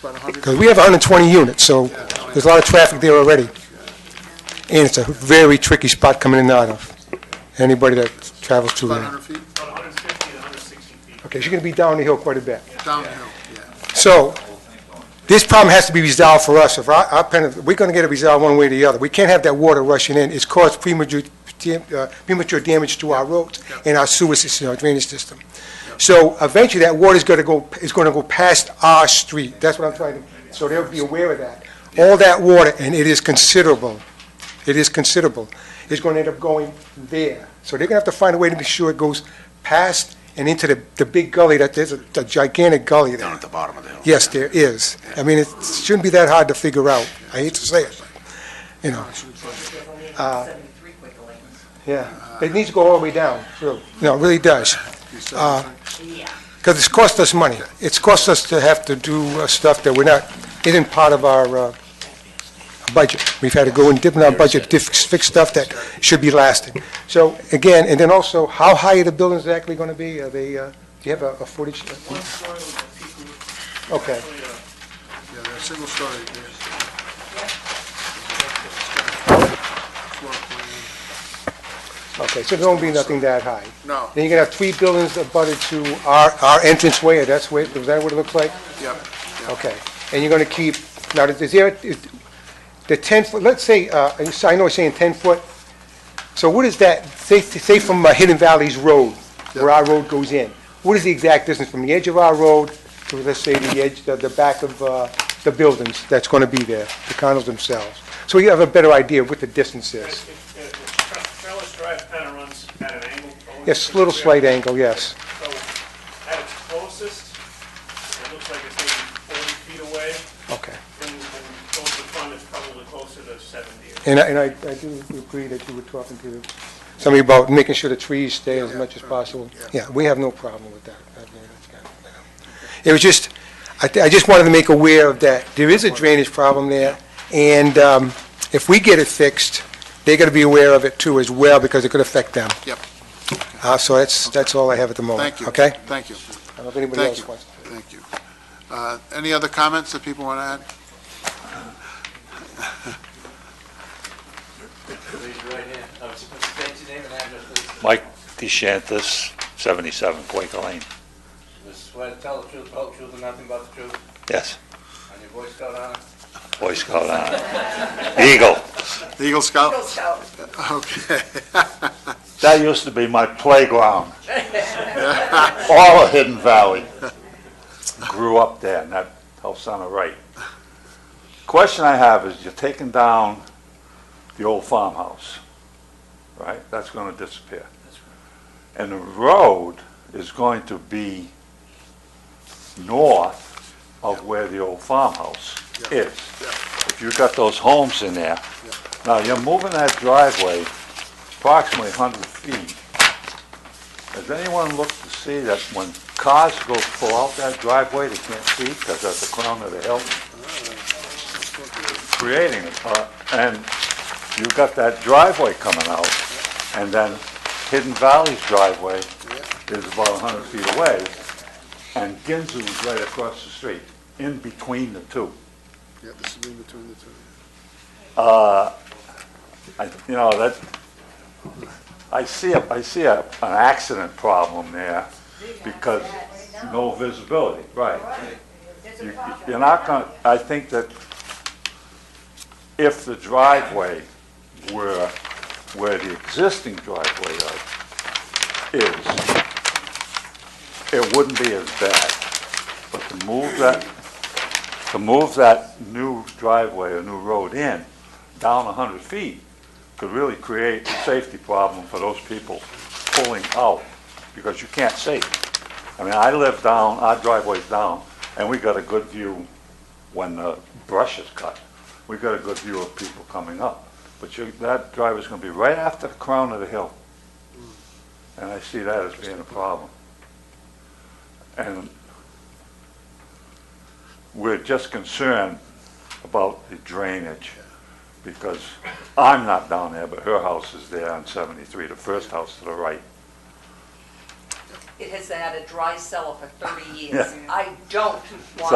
about 100. Because we have 120 units, so there's a lot of traffic there already. And it's a very tricky spot coming in and out of, anybody that travels through About there. 100 feet about 150 to 160 feet. Okay, so you're going to be down the hill quite a bit. downhill, yeah. So, this problem has to be resolved for us. If our, our, pen- we're gonna get it resolved one way or the other. We can't have that water rushing in. It's caused premature, dam- uh, premature damage to our roads and our sewer system, our drainage system. So eventually, that water's gonna go, is gonna go past our street. That's what I'm trying to, so they'll be aware of that. All that water, and it is considerable, it is considerable, is gonna end up going there. So they're gonna have to find a way to be sure it goes past and into the, the big gully, that, there's a a gigantic gully there. down at the bottom of the hill. Yes, there is. I mean, it shouldn't be that hard to figure out. I hate to say it, you know. Yeah, it needs to go all the way down, really. No, it really does, You said that's right. because it's cost us money. It's cost us to have to do uh, stuff that we're not, isn't part of our uh, budget. We've had to go and dip in our budget, to fix fix stuff that should be lasting. So again, and then also, how high are the buildings actually going to be? Are they, uh, do you have a a footage? One story with a peak roof. Okay. Actually, uh, Yeah, they're single story, yeah. Floor plan. Okay, so there won't be nothing that high. No, Then you're gonna have three buildings abutted to our, our entranceway, or that's what, is that what it looks like? yep, yep. Okay, and you're gonna keep, now, is there, is, the ten foot, let's say, uh, I s- I know I'm saying ten foot, so what is that, say, say from uh, Hidden Valley's road, where our road goes in, what is the exact distance from the edge of our road to, let's say, the edge, the, the back of, uh, the buildings that's gonna be there, the condos themselves? So you have a better idea of what the distance it- is. it- it- Tra- Trellis Drive kind of runs at an angle. going Yes, to little the- slight angle, yes. So at its closest, it looks like it's maybe 40 feet away. Okay. And and close to front, it's probably closer to 70. And I, and I I do agree that you were talking to somebody about making sure the trees stay as much as possible. Yeah, we have no problem with that. I mean, that's kind of, yeah. It was just, I, thi- I just wanted to make aware of that. There is a drainage problem there, and, um, if we get it fixed, they're gonna be aware of it too as well, because it could affect them. Yep. Uh, so that's, that's all I have at the moment. Thank you. Okay? Thank you, I don't know if anybody thank else you, wants. thank you. Uh, Any other comments that people want to add? Raise your right hand. No, it's- it's- state your name and address, please. Mike DeShantis, 77 Quaker Lane. You Swear to tell the truth, the whole truth, and nothing but the truth, Yes, and your voice got on Boy Scout honor. Eagle. The Eagle Scout? it. Okay, That used to be my playground. All of Hidden Valley. Grew up there, and that helps on the right. Question I have is, you're taking down the old farmhouse, right? That's going to disappear. And the road is going to be north of where the old farmhouse is. If you've got those homes in there. Now, you're moving that driveway approximately 100 feet. Has anyone looked to see that when cars go pull out that driveway, they can't see because that's the crown of the hill? Creating, a- uh, and you've got that driveway coming out, and then Hidden Valley's driveway is about 100 feet away, and Ginzu is right across the street, in between the two. yeah, this is in between the two. I, you know, that, I see a, I see a, an accident problem there because no visibility, right. You- You're not gonna, I think that if the driveway were, where the existing driveway is, it wouldn't be as bad. But to move that, to move that new driveway or new road in, down 100 feet could really create a safety problem for those people pulling out, because you can't see. I mean, I live down, our driveway's down, and we got a good view when the brush is cut. We got a good view of people coming up. But you, that driveway's gonna be right after the crown of the hill. And I see that as being a problem. And we're just concerned about the drainage because I'm not down there, but her house is there on 73, the first house to the right. It has had a dry cellar for 30 years. Yeah. I don't want